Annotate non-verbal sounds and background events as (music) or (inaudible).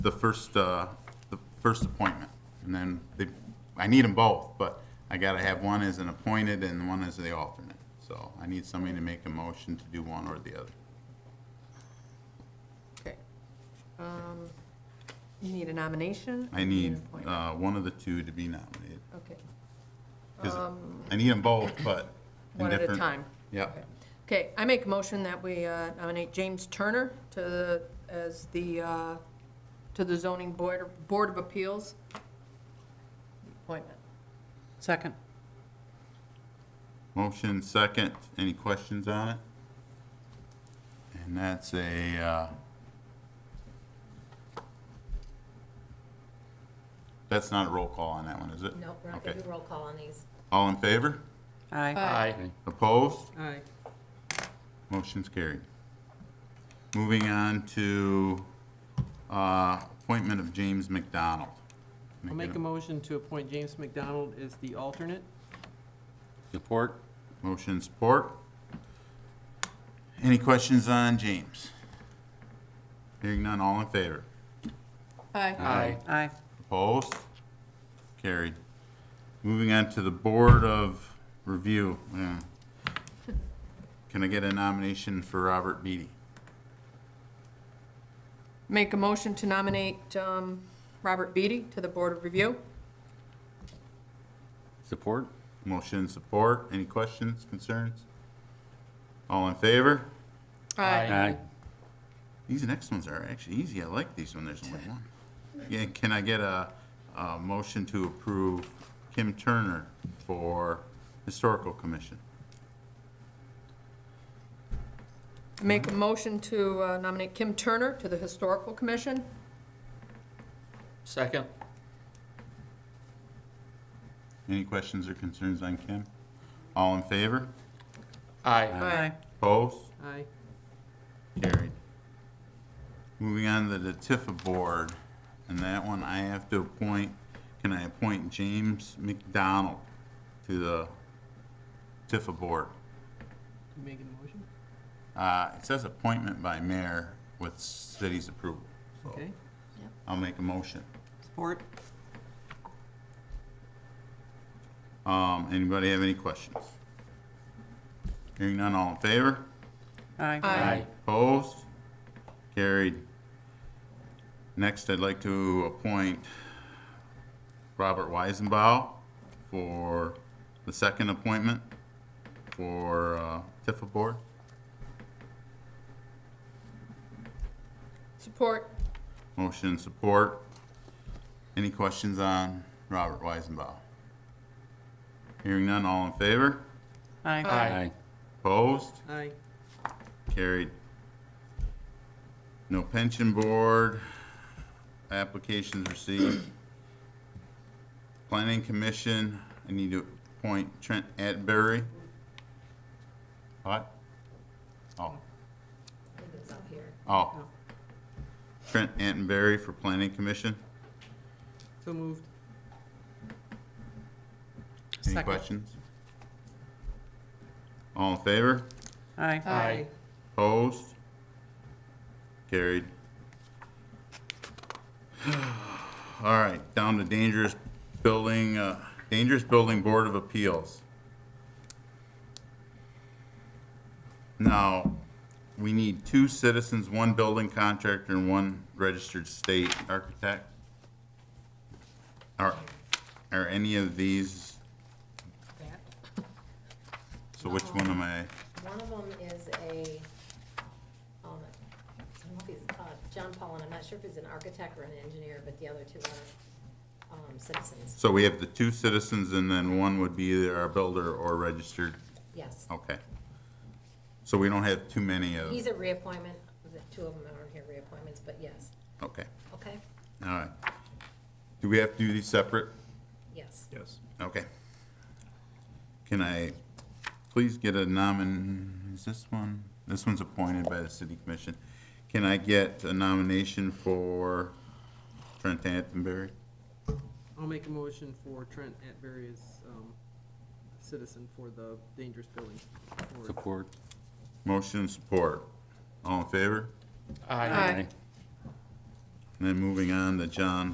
the first, uh, the first appointment. And then they, I need them both, but I gotta have one as an appointed and one as the alternate. So I need somebody to make a motion to do one or the other. Okay. Um, You need a nomination? I You an need appointment? uh, one of the two to be nominated. Okay, 'Cause I need them both, but. in Um, one at a different- time. Yep. Okay, I make a motion that we uh, nominate James Turner to, the as the, uh, to the zoning board, Board of Appeals appointment. Second. Motion second. Any questions on it? And that's a, uh, that's not a roll call on that one, is it? No, we're not Okay. gonna do roll call on these. All in favor? Aye. Aye. Opposed? Aye. Motion's carried. Moving on to uh, appointment of James McDonald. I'll make a motion to appoint James McDonald as the alternate. Support? Motion support. Any questions on James? Hearing none, all in favor? Aye. Aye. Aye. Opposed? Carried. Moving on to the Board of Review. yeah. Can I get a nomination for Robert Beatty? Make a motion to nominate um, Robert Beatty to the Board of Review. Support? Motion support. Any questions, concerns? All in favor? Aye. These next ones are actually easy. I like these when there's only one. Yeah, can I get a, a motion to approve Kim Turner for Historical Commission? Make a motion to uh, nominate Kim Turner to the Historical Commission. Second? Any questions or concerns on Kim? All in favor? Aye. Aye. Opposed? Aye. Carried. Moving on to the Tifa Board, and that one I have to appoint, can I appoint James McDonald to the Tifa Board? You making a motion? Uh, it says appointment by mayor with city's approval, so Okay. I'll make a motion. Support. Um, anybody have any questions? Hearing none, all in favor? Aye. Aye. Opposed? Carried. Next, I'd like to appoint Robert Weisenbaugh for the second appointment for uh, Tifa Board. Support. Motion and support. Any questions on Robert Weisenbaugh? Hearing none, all in favor? Aye. Aye. Opposed? Aye. Carried. No pension board, applications received. Planning commission, I need to appoint Trent Atbury. What? Oh, I think it was up here. oh. Trent Attenberry for planning commission. So moved. Any Second. questions? All in favor? Aye. Aye. Opposed? Carried. (sighs) All right, down to dangerous building, uh, dangerous building board of appeals. Now, we need two citizens, one building contractor, and one registered state architect. Are, are any of these, That, so which one am I, one of them is a, um, I don't know if he's, uh, John Paulin, I'm not sure if he's an architect or an engineer, but the other two are, um, citizens, so we have the two citizens and then one would be either our builder or registered yes. Okay. So we don't have too many of, He's a reappointment, the two of them aren't here reappointments, but yes, okay, okay, all right. Do we have to do these separate? yes. Yes. Okay. Can I please get a nomin, is this one? This one's appointed by the city commission. Can I get a nomination for Trent Attenberry? I'll make a motion for Trent Atbury as um, citizen for the dangerous building. board. Support? Motion and support. All in favor? Aye. And then moving on to John